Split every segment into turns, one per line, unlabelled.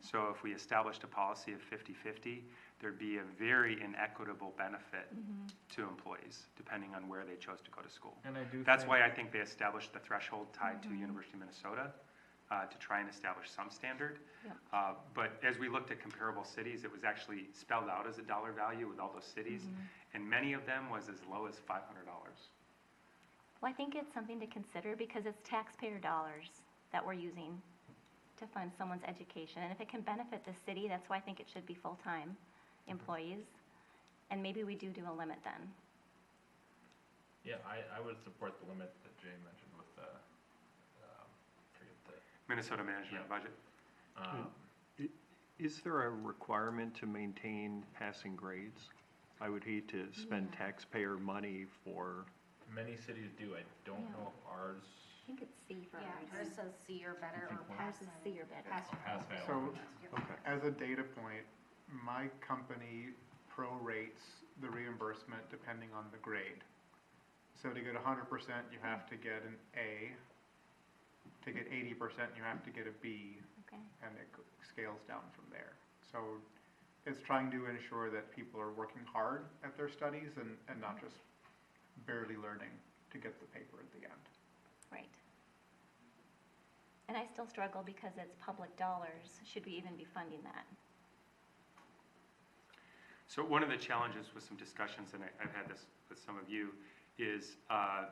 So if we established a policy of 50/50, there'd be a very inequitable benefit to employees, depending on where they chose to go to school.
And I do
That's
think-
why I think they established the threshold tied to University of Minnesota, uh, to try and establish some standard.
Yeah.
Uh, But as we looked at comparable cities, it was actually spelled out as a dollar value with all those cities, and many of them was as low as five hundred dollars.
Well, I think it's something to consider because it's taxpayer dollars that we're using to fund someone's education. And if it can benefit the city, that's why I think it should be full-time employees. And maybe we do do a limit then.
Yeah, I, I would support the limit that Jay mentioned with the, um, forget the,
Minnesota Management
Yeah.
Budget.
um,
Is there a requirement to maintain passing grades? I would hate to spend taxpayer money for,
many cities do, I don't
Yeah.
know if ours
I think it's C for
Yeah, ours
ours.
says C or better or
Ours
pass.
is C or better.
Pass.
has failed.
So,
Yep.
okay.
as a data point, my company prorates the reimbursement depending on the grade. So to get hundred percent, you have to get an A. To get eighty percent, you have to get a B,
Okay.
and it g- scales down from there. So it's trying to ensure that people are working hard at their studies and, and not just barely learning to get the paper at the end.
Right. And I still struggle because it's public dollars. Should we even be funding that?
So one of the challenges with some discussions, and I- I've had this with some of you, is uh,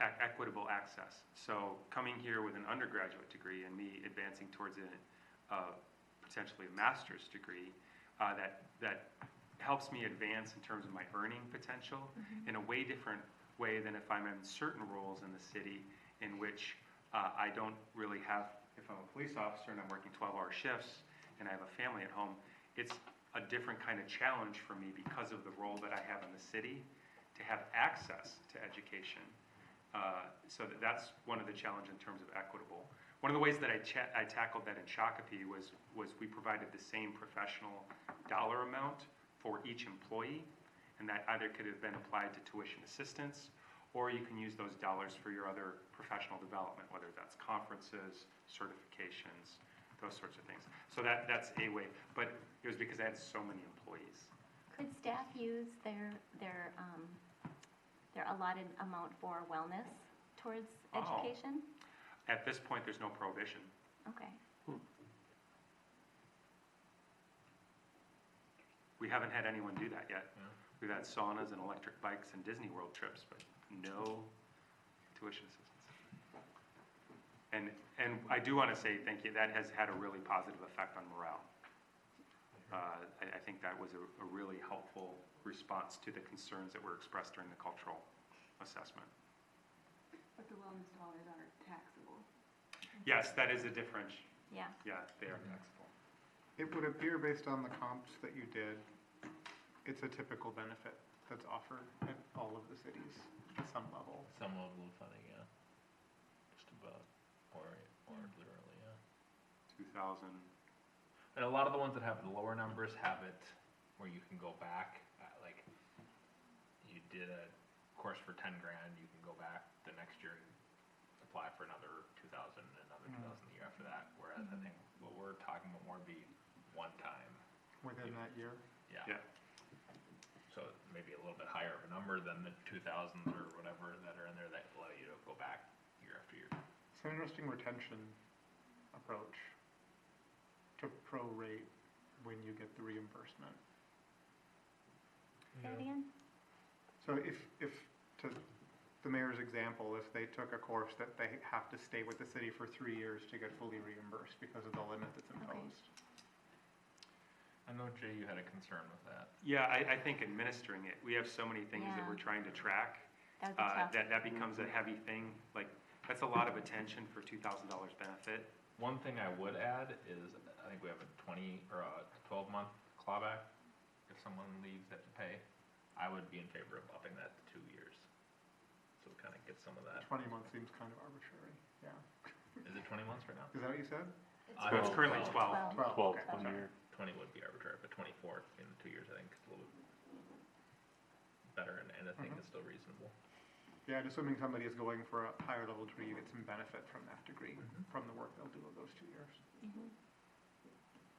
e- equitable access. So coming here with an undergraduate degree and me advancing towards a, uh, potentially a master's degree, uh, that, that helps me advance in terms of my earning potential in a way different way than if I'm in certain roles in the city in which uh, I don't really have, if I'm a police officer and I'm working 12-hour shifts and I have a family at home, it's a different kind of challenge for me because of the role that I have in the city to have access to education. Uh, So that that's one of the challenge in terms of equitable. One of the ways that I cha- I tackled that in Shakopee was, was we provided the same professional dollar amount for each employee, and that either could have been applied to tuition assistance, or you can use those dollars for your other professional development, whether that's conferences, certifications, those sorts of things. So that, that's a way, but it was because I had so many employees.
Could staff use their, their, um, their allotted amount for wellness towards
Oh.
education?
At this point, there's no prohibition.
Okay.
We haven't had anyone do that yet.
Yeah.
We've had saunas and electric bikes and Disney World trips, but no tuition assistance. And, and I do want to say thank you, that has had a really positive effect on morale. Uh, I, I think that was a, a really helpful response to the concerns that were expressed during the cultural assessment.
But the wellness dollars are taxable.
Yes, that is a difference,
Yeah.
yeah, they are taxable.
It would appear based on the comps that you did, it's a typical benefit that's offered at all of the cities at some level.
Some level of funding, yeah. Just about, or, or literally, yeah.
2,000,
And a lot of the ones that have the lower numbers have it where you can go back, uh, like, you did a course for ten grand, you can go back the next year and apply for another two thousand, another two thousand the year after that, whereas I think what we're talking about more would be one time,
Within that year?
yeah.
yeah.
So maybe a little bit higher of a number than the two thousands or whatever that are in there that allow you to go back year after year.
It's an interesting retention approach to prorate when you get the reimbursement.
Say it again?
So if, if, to the mayor's example, if they took a course that they have to stay with the city for three years to get fully reimbursed because of the limit that's imposed.
I know Jay, you had a concern with that.
Yeah, I, I think administering it, we have so many things that
Yeah.
we're trying to track.
That would be
uh,
tough.
that, that becomes a heavy thing, like, that's a lot of attention for two thousand dollars benefit.
One thing I would add is, I think we have a twenty, or a twelve-month clawback. If someone leaves, they have to pay. I would be in favor of upping that to two years. So kind of get some of that.
Twenty months seems kind of arbitrary, yeah.
Is it twenty months right now?
Is that what you said?
I
So it's
don't
currently
know.
twelve.
Twelve.
Twelve,
Twelve,
okay.
one year.
Twenty would be arbitrary, but twenty-four in two years, I think, is a little better, and, and I think
Mm-hmm.
it's still reasonable.
Yeah, and assuming somebody is going for a higher level degree, you get some benefit from that degree, from the work they'll do in those two years.
Mhm.